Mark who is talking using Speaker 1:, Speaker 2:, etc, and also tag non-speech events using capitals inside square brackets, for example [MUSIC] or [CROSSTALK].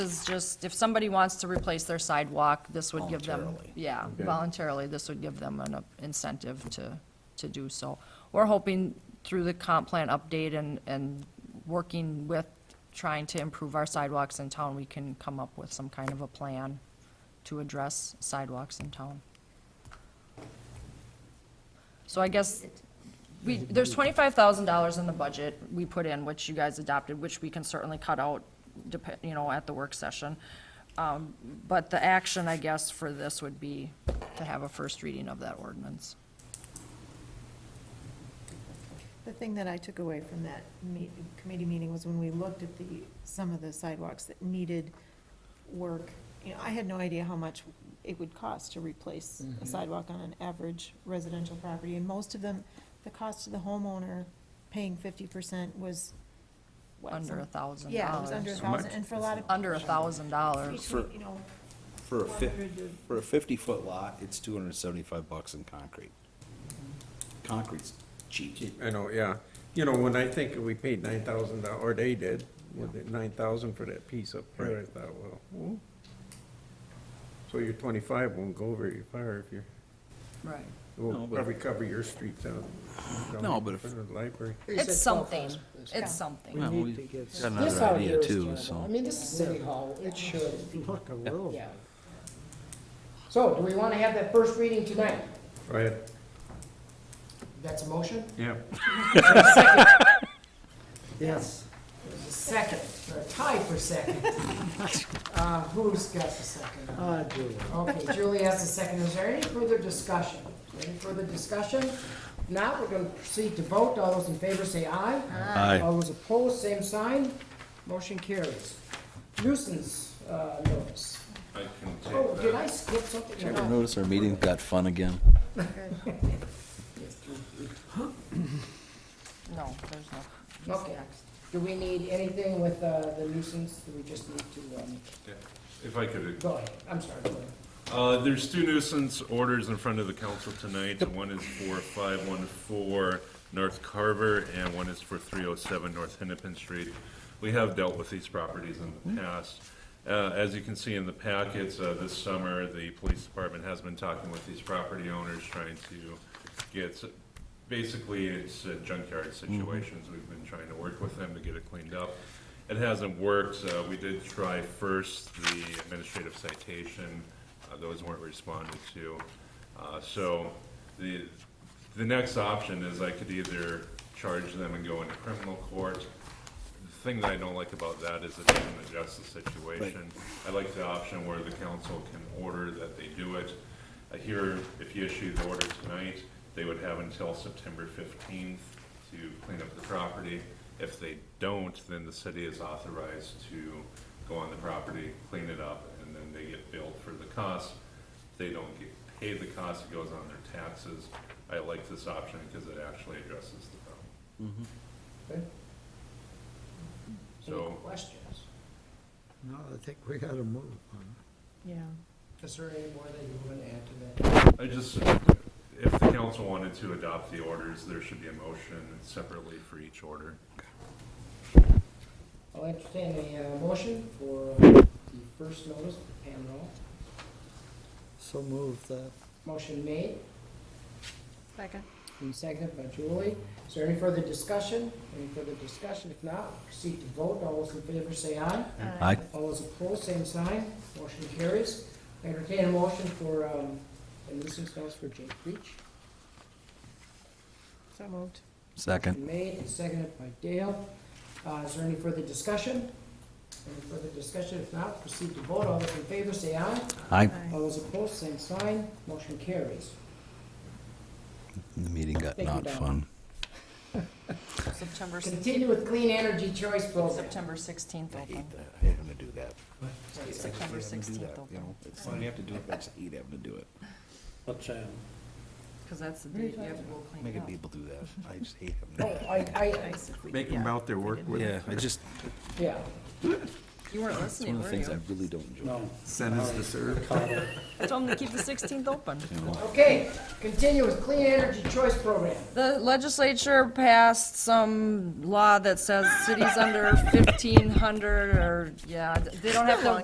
Speaker 1: is just, if somebody wants to replace their sidewalk, this would give them.
Speaker 2: Voluntarily.
Speaker 1: Yeah,
Speaker 2: Okay.
Speaker 1: voluntarily, this would give them an uh, incentive to, to do so. We're hoping through the comp plan update and, and working with, trying to improve our sidewalks in town, we can come up with some kind of a plan to address sidewalks in town. So I guess, we, there's twenty-five thousand dollars in the budget we put in, which you guys adopted, which we can certainly cut out, dep- you know, at the work session. Um, but the action, I guess, for this would be to have a first reading of that ordinance.
Speaker 3: The thing that I took away from that me- committee meeting was when we looked at the, some of the sidewalks that needed work. You know, I had no idea how much it would cost to replace a sidewalk on an average residential property. And most of them, the cost to the homeowner paying fifty percent was, what?
Speaker 1: Under a
Speaker 3: some-
Speaker 1: thousand dollars.
Speaker 3: Yeah, it was under a thousand, and for a lot of.
Speaker 1: Under a thousand dollars.
Speaker 3: Between, you know,
Speaker 2: For a fif,
Speaker 3: 400 to-
Speaker 2: for a fifty-foot lot, it's two hundred and seventy-five bucks in concrete. Concrete's cheap.
Speaker 4: I know, yeah. You know, when I think we paid nine thousand, or they did, with it nine thousand for that piece up there, I
Speaker 2: Right.
Speaker 4: thought, well, hmm. So your twenty-five won't go very far if you're,
Speaker 1: Right.
Speaker 4: it will
Speaker 2: No, but-
Speaker 4: probably cover your street down. down
Speaker 2: No,
Speaker 4: in
Speaker 2: but if-
Speaker 4: front of the Library.
Speaker 1: It's something, it's
Speaker 5: We
Speaker 1: something.
Speaker 5: need to get
Speaker 6: Got
Speaker 5: some-
Speaker 6: another
Speaker 7: This out
Speaker 2: idea
Speaker 6: idea
Speaker 2: too, so-
Speaker 6: too, so. I mean, this is City Hall, it should,
Speaker 5: look a little.
Speaker 6: yeah. So, do we want to have that first reading tonight?
Speaker 4: Go ahead.
Speaker 6: That's a motion?
Speaker 4: Yeah.
Speaker 6: Yes. There's a Second, or a tie for [LAUGHS] second. Uh, Who's got the second?
Speaker 5: Ah, Julie.
Speaker 6: Okay, Julie has the second. Is there any further discussion? Any further discussion? Now, we're going to proceed to vote. All those in favor say aye.
Speaker 2: Aye.
Speaker 6: All those opposed, same sign. Motion carries. Nuisance uh, notice.
Speaker 8: I can
Speaker 6: Oh,
Speaker 8: take
Speaker 6: did
Speaker 8: that.
Speaker 6: I skip something?
Speaker 2: Ever
Speaker 6: No.
Speaker 2: notice our meeting got fun again?
Speaker 1: No, there's no.
Speaker 6: Okay. Do we need anything with uh, the nuisance? Do we just need to, um,
Speaker 8: If I could,
Speaker 6: go ahead, I'm sorry, go ahead.
Speaker 8: uh, there's two nuisance orders in front of the council tonight. One is for five one four North Carver and one is for three oh seven North Hennepin Street. We have dealt with these properties in the past. Uh, as you can see in the packets, uh, this summer, the police department has been talking with these property owners, trying to get, s- basically, it's uh, junkyard situations. We've been trying to work with them to get it cleaned up. It hasn't worked, so we did try first the administrative citation, uh, those weren't responded to. Uh, so, the, the next option is I could either charge them and go into criminal court. The thing that I don't like about that is it doesn't adjust the situation. I like the option where the council can order that they do it. I hear if you issue the order tonight, they would have until September fifteenth to clean up the property. If they don't, then the city is authorized to go on the property, clean it up, and then they get billed for the cost. If They don't get paid the cost, it goes on their taxes. I like this option because it actually addresses the problem.
Speaker 6: Any
Speaker 8: So,
Speaker 6: questions?
Speaker 5: No, I think we gotta move on.
Speaker 3: Yeah,
Speaker 6: Is there any more that you want to add to that?
Speaker 8: I just, if the council wanted to adopt the orders, there should be a motion separately for each order.
Speaker 6: I'll entertain a uh, motion for the first notice, Pam Noel.
Speaker 5: So move that.
Speaker 6: Motion made,
Speaker 3: second.
Speaker 6: and seconded by Julie. Is there any further discussion? Any further discussion? If not, proceed to vote. All those in favor say aye.
Speaker 2: Aye.
Speaker 6: All those opposed, same sign. Motion carries. Entertain a motion for, um, the nuisance notice for Jake Beach.
Speaker 3: So moved.
Speaker 2: Second.
Speaker 6: Made and seconded by Dale. Uh, Is there any further discussion? Any further discussion? If not, proceed to vote. All those in favor say aye.
Speaker 2: Aye.
Speaker 3: Aye.
Speaker 6: All those opposed, same sign. Motion carries.
Speaker 2: The meeting got
Speaker 6: Thank you,
Speaker 2: not
Speaker 6: Don.
Speaker 2: fun.
Speaker 1: September,
Speaker 6: Continue with Clean Energy Choice Program.
Speaker 1: September sixteenth open.
Speaker 2: I hate having to do that.
Speaker 1: September sixteenth open.
Speaker 2: It's not, you have to do it, but I just hate having to do it.
Speaker 9: What's that?
Speaker 1: Cause that's the date you have to go clean
Speaker 2: Making
Speaker 1: up.
Speaker 2: people do that. I just hate having
Speaker 6: Oh,
Speaker 2: to do that.
Speaker 6: I, I,
Speaker 1: Nice if we-
Speaker 4: Make them
Speaker 1: yeah.
Speaker 4: out their work with it.
Speaker 2: Yeah, I just,
Speaker 6: yeah.
Speaker 7: You weren't
Speaker 2: It's
Speaker 7: listening,
Speaker 2: one of the
Speaker 7: were
Speaker 2: things I
Speaker 7: you?
Speaker 2: really don't enjoy.
Speaker 4: Sentence to serve.
Speaker 1: Tell them to keep the 16th open.
Speaker 6: Okay, continue with Clean Energy Choice Program.
Speaker 1: The legislature passed some law that says cities under 1,500, or, yeah, they don't have to